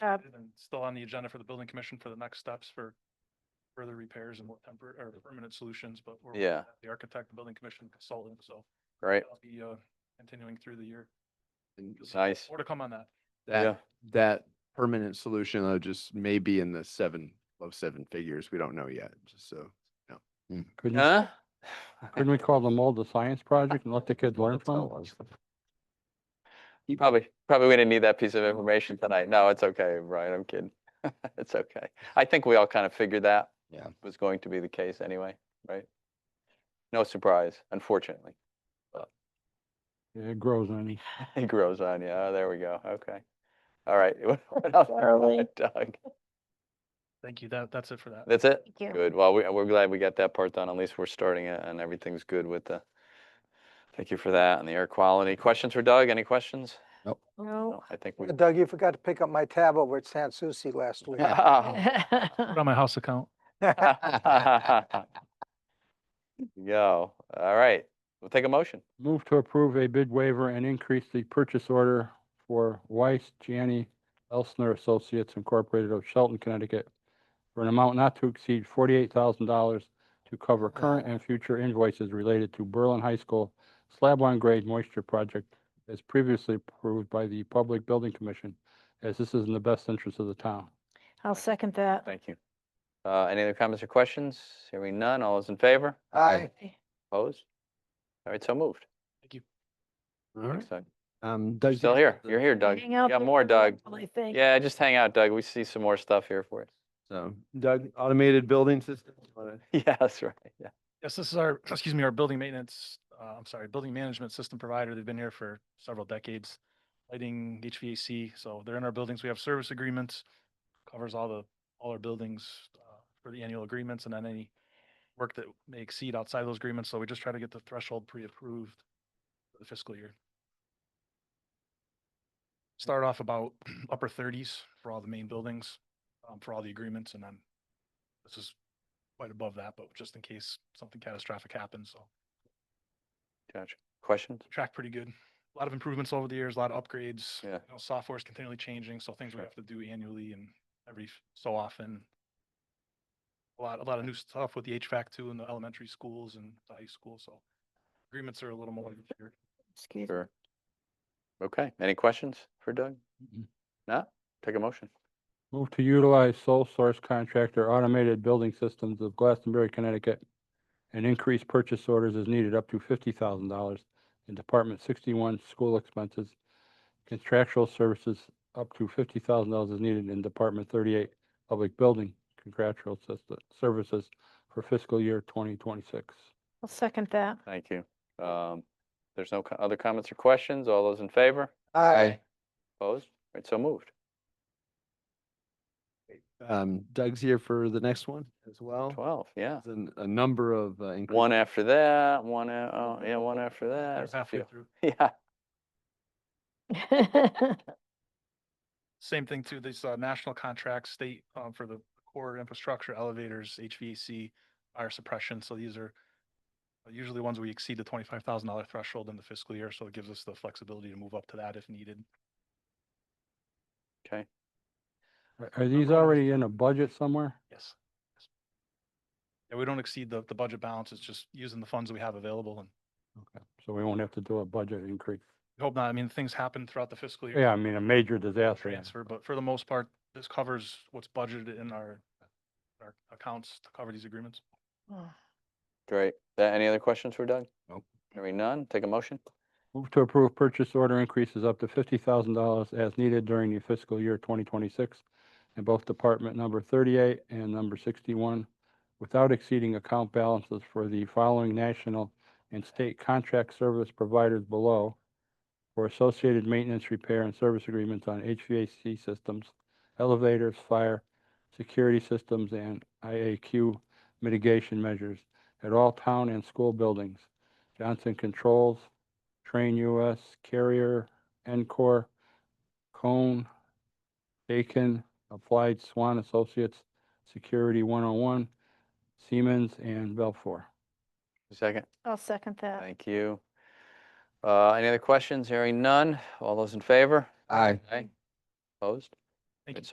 Uh, And then still on the agenda for the building commission for the next steps for further repairs and more temporary or permanent solutions, but we're. working Yeah. with The architect, the building commission consultant, so. right? that'll Be, uh, continuing through the year. So Nice. More to come on that. Yeah. That, that permanent solution, though, just may be in the seven, low seven figures. We don't know yet, just so. Couldn't, Huh? couldn't we call them all the science project and let the kids learn from it? You probably, probably we didn't need that piece of information tonight. No, it's okay, Brian, I'm kidding. It's okay. I think we all kind of figured that. Yeah. Was going to be the case anyway, right? No surprise, unfortunately. It grows on you. It grows on you. Oh, there we go. Okay. All right. What what else? Charlie. Doug, Thank you. That, that's it for that. that's it? Thank you. Good. Well, we, we're glad we got that part done. At least we're starting it and everything's good with the, thank you for that and the air quality. Questions for Doug? Any questions? No. No, I think we. Doug, you forgot to pick up my tab over at San Souci last week. Oh, Put on my house account. Yo, all right, we'll take a motion. Move to approve a bid waiver and increase the purchase order for Weiss Gianni Elsner Associates Incorporated of Shelton, Connecticut for an amount not to exceed forty-eight thousand dollars to cover current and future invoices related to Berlin High School slab on grade moisture project as previously approved by the Public Building Commission, as this is in the best interest of the town. I'll second that. Thank you. Uh, any other comments or questions? Hearing none, all those in favor? Aye. Opposed? All right, so moved. All Thanks, Doug. Um, You're Doug. Still did you here. have the- You're here, Doug. Hang out You got there more, for a Doug. while, I think. Yeah, just hang out, Doug. We see some more stuff here for So Doug, automated building system. wanna- you. Yeah, that's right. Yeah. Yes, this is our, excuse me, our building maintenance, uh, I'm sorry, building management system provider. They've been here for several decades. Lighting, HVAC, so they're in our buildings. We have service agreements. Covers all the, all our buildings uh, for the annual agreements and then any work that may exceed outside those agreements. So we just try to get the threshold pre-approved for the fiscal year. Start off about upper thirties for all the main buildings, um, for all the agreements and then this is quite above that, but just in case something catastrophic happens, so Gotcha. Questions? track pretty good. A lot of improvements over the years, a lot of upgrades. Yeah. You know, software is continually changing, so things we Sure. have to do annually and every f- so often. A lot, a lot of new stuff with the HVAC too in the elementary schools and the high school, so agreements are a little more. clear. Excuse me. Sure. Okay, any questions for Doug? Mhm. No? Take a motion. Move to utilize sole source contractor automated building systems of Glastonbury, Connecticut. And increase purchase orders as needed up to fifty thousand dollars in Department sixty-one school expenses. Contractual services up to fifty thousand dollars is needed in Department thirty-eight public building contractual sys- services for fiscal year twenty twenty-six. I'll second that. Thank you. Um, there's no co- other comments or questions? All those in favor? Aye. Opposed? All right, so moved. Um, Doug's here for the next one as well. 12, yeah. There's an- A number of. uh, increase- One after that, one, a- oh, yeah, one after that. They're it's a halfway few. through. Yeah, Same thing too, these uh, national contracts, state um, for the core infrastructure, elevators, HVAC, fire suppression. So these are usually ones we exceed the twenty-five thousand dollar threshold in the fiscal year, so it gives us the flexibility to move up to that if needed. okay. Are- Are these already in a budget somewhere? Yes. Yes. Yeah, we don't exceed the, the budget balance. It's just using the funds we have available and Okay, So we won't have to do a budget increase. we hope not. I mean, things happen throughout the fiscal year. Yeah, I mean, a major a disaster. yeah. Transfer, but for the most part, this covers what's budgeted in our, our accounts to cover these agreements. Oh. Great. Uh, Any other questions for Doug? Nope. Hearing none, take a motion. Move to approve purchase order increases up to fifty thousand dollars as needed during the fiscal year twenty twenty-six in both Department number thirty-eight and number sixty-one without exceeding account balances for the following national and state contract service providers below for associated maintenance, repair, and service agreements on HVAC systems, elevators, fire, security systems, and IAQ mitigation measures at all town and school buildings. Johnson Controls, Train US, Carrier, Encore, Cone, Bacon, Applied Swan Associates, Security 101, Siemens, and Belfour. Second, I'll second that. thank you. Uh, any other questions? Hearing none, all those in favor? Aye. Aye. Opposed? Thank Right, you.